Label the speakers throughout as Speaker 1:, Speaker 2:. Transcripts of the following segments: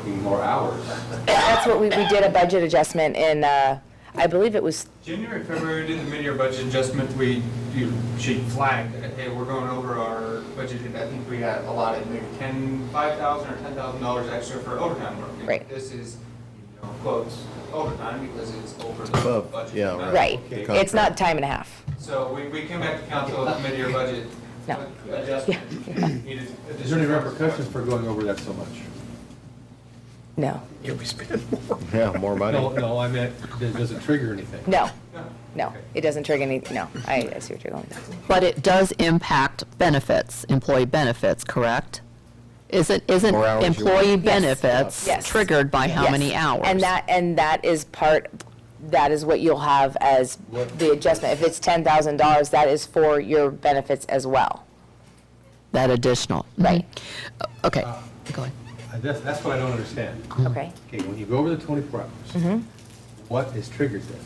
Speaker 1: more hours.
Speaker 2: That's what we, we did a budget adjustment in, uh, I believe it was,
Speaker 1: January, February, did the mid-year budget adjustment, we, you, she flagged, that, hey, we're going over our budgeted, I think we had allotted maybe ten, five thousand or ten thousand dollars extra for overtime work. And
Speaker 2: Right.
Speaker 1: This is, you know, quotes, overtime because it's over the
Speaker 3: Above,
Speaker 1: budget.
Speaker 3: yeah,
Speaker 1: amount.
Speaker 2: right,
Speaker 1: Oh, Okay.
Speaker 2: it's not time and a half.
Speaker 1: So we, we came back to council with mid-year budget
Speaker 2: No.
Speaker 1: adjustment. Needed
Speaker 4: Is there any
Speaker 1: additional-
Speaker 4: repercussions for going over that so much?
Speaker 2: No,
Speaker 3: Yeah, more
Speaker 4: No,
Speaker 3: money.
Speaker 4: no, I meant, it doesn't trigger anything.
Speaker 2: no,
Speaker 1: No.
Speaker 2: no, it doesn't trigger any, no, I I see what you're going with.
Speaker 5: But it does impact benefits, employee benefits, correct? Isn't, isn't
Speaker 3: More hours you work.
Speaker 5: employee benefits
Speaker 2: Yes.
Speaker 5: triggered by how
Speaker 2: Yes.
Speaker 5: many hours?
Speaker 2: And that, and that is part, that is what you'll have as the adjustment. If it's ten thousand dollars, that is for your benefits as well.
Speaker 5: That additional.
Speaker 2: Right.
Speaker 5: Mhm. O- Okay, go ahead.
Speaker 4: Uh, That's, that's what I don't understand.
Speaker 2: Okay? Mm-hmm.
Speaker 4: Okay, when you go over the 24 hours, what is triggered then?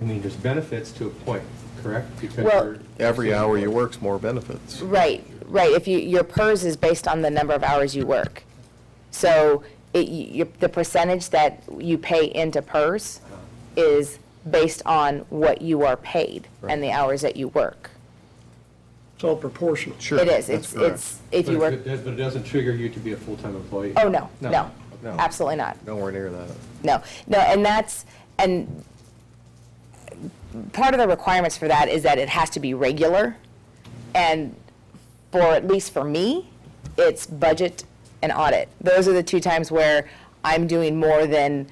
Speaker 4: I mean, there's benefits to a point, correct? Because
Speaker 2: Well-
Speaker 4: you're-
Speaker 3: Every hour you work's more benefits.
Speaker 2: Right, right. If you, your PERS is based on the number of hours you work. So it, you, the percentage that you pay into PERS is based on what you are paid and the hours that you work.
Speaker 6: It's all proportional.
Speaker 3: Sure.
Speaker 2: It is,
Speaker 3: that's
Speaker 2: it's,
Speaker 3: correct.
Speaker 2: it's, if
Speaker 4: But
Speaker 2: you
Speaker 4: it-
Speaker 2: work,
Speaker 4: But it doesn't trigger you to be a full-time employee?
Speaker 2: oh, no,
Speaker 4: No.
Speaker 2: no,
Speaker 3: No.
Speaker 2: absolutely not.
Speaker 3: Nowhere near that.
Speaker 2: No, no, and that's, and part of the requirements for that is that it has to be regular. And for, at least for me, it's budget and audit. Those are the two times where I'm doing more than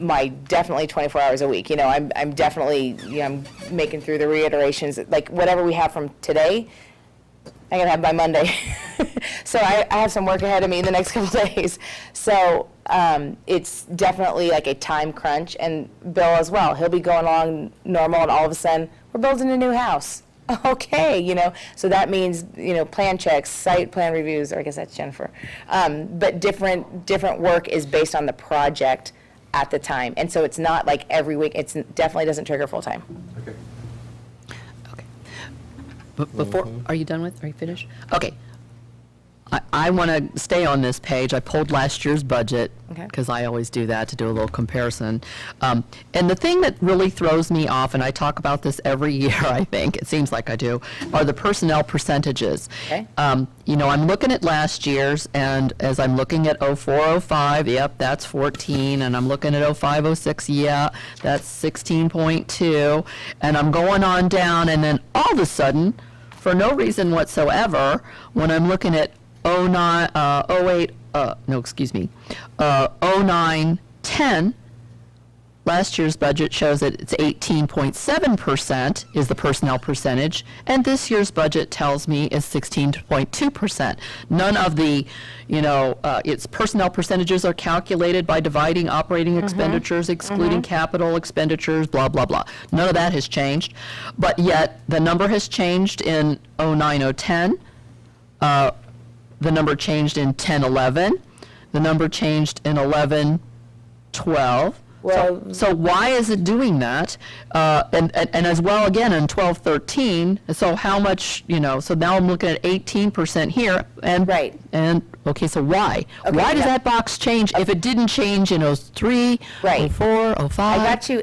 Speaker 2: my definitely 24 hours a week. You know, I'm, I'm definitely, you know, I'm making through the reiterations, like whatever we have from today, I gotta have by Monday. so I, I have some work ahead of me in the next couple days. So um, it's definitely like a time crunch, and Bill as well. He'll be going along normal, and all of a sudden we're building a new house. Okay, you know, so that means you know plan checks, site plan reviews, or I guess that's Jennifer. Um, but different different work is based on the project at the time, and so it's not like every week. It's definitely doesn't trigger full time.
Speaker 4: Okay.
Speaker 5: Okay. B- Before, are you done with, are you finished? Okay. I, I want to stay on this page. I pulled last year's budget,
Speaker 2: Okay.
Speaker 5: because I always do that to do a little comparison. Um, And the thing that really throws me off, and I talk about this every year, I think, it seems like I do, are the personnel percentages.
Speaker 2: Okay.
Speaker 5: Um, You know, I'm looking at last year's, and as I'm looking at 04, 05, yep, that's 14, and I'm looking at 05, 06, yeah, that's 16.2, and I'm going on down, and then all of a sudden, for no reason whatsoever, when I'm looking at 09, uh, 08, uh, no, excuse me, uh, 09, 10, last year's budget shows that it's 18.7% is the personnel percentage, and this year's budget tells me is 16.2%. None of the, you know, uh, its personnel percentages are calculated by dividing operating expenditures, excluding capital expenditures, blah, blah, blah. None of that has changed, but yet the number has changed in 09, 010, the number changed in 10, 11, the number changed in 11, 12.
Speaker 2: Well-
Speaker 5: So, so why is it doing that? Uh, and, and, and as well, again, in 12, 13, so how much, you know, so now I'm looking at 18% here, and.
Speaker 2: Right.
Speaker 5: And, okay, so why? Why does
Speaker 2: yeah.
Speaker 5: that box change if it didn't change in 03,
Speaker 2: Right.
Speaker 5: 04, 05?
Speaker 2: I got you.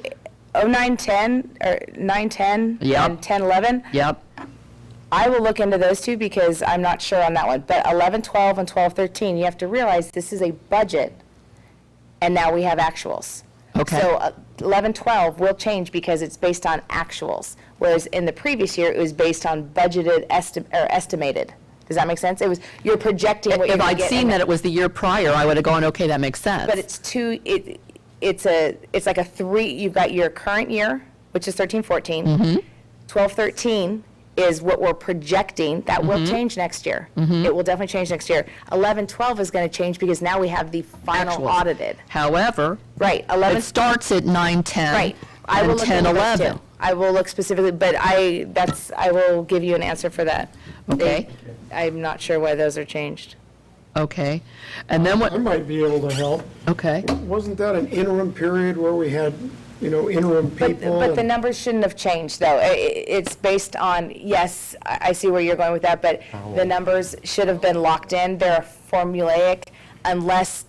Speaker 2: 0910 or 910
Speaker 5: Yep.
Speaker 2: and 1011.
Speaker 5: Yep,
Speaker 2: I will look into those two because I'm not sure on that one. But 11, 12, and 12, 13, you have to realize this is a budget, and now we have actuals.
Speaker 5: Okay.
Speaker 2: So uh, 11, 12 will change because it's based on actuals, whereas in the previous year, it was based on budgeted esti- or estimated. Does that make sense? It was, you're projecting what you're
Speaker 5: if
Speaker 2: going to
Speaker 5: I'd
Speaker 2: get.
Speaker 5: seen
Speaker 2: and-
Speaker 5: that it was the year prior, I would have gone, okay, that makes sense.
Speaker 2: But it's two, it, it's a, it's like a three, you've got your current year, which is 13,
Speaker 5: Mm-hmm.
Speaker 2: 14. 12, 13 is what we're projecting, that will
Speaker 5: Mm-hmm.
Speaker 2: change next year. It will definitely change next year. 11, 12 is going to change because now we have the final
Speaker 5: Actuals.
Speaker 2: audited.
Speaker 5: However,
Speaker 2: Right, 11,
Speaker 5: it starts at 9, 10.
Speaker 2: right. I will
Speaker 5: and
Speaker 2: look
Speaker 5: 10,
Speaker 2: into those
Speaker 5: 11.
Speaker 2: too. I will look specifically, but I, that's, I will give you an answer for that. They-
Speaker 5: Okay.
Speaker 2: I'm not sure why those are changed.
Speaker 5: Okay, and
Speaker 6: I
Speaker 5: then what,
Speaker 6: might be able to help.
Speaker 5: okay,
Speaker 6: Wasn't that an interim period where we had, you know, interim
Speaker 2: But,
Speaker 6: people?
Speaker 2: but the
Speaker 6: and-
Speaker 2: numbers shouldn't have changed, though. I- I- It's based on, yes, I I see where you're going with that, but the numbers should have been locked in. They're formulaic unless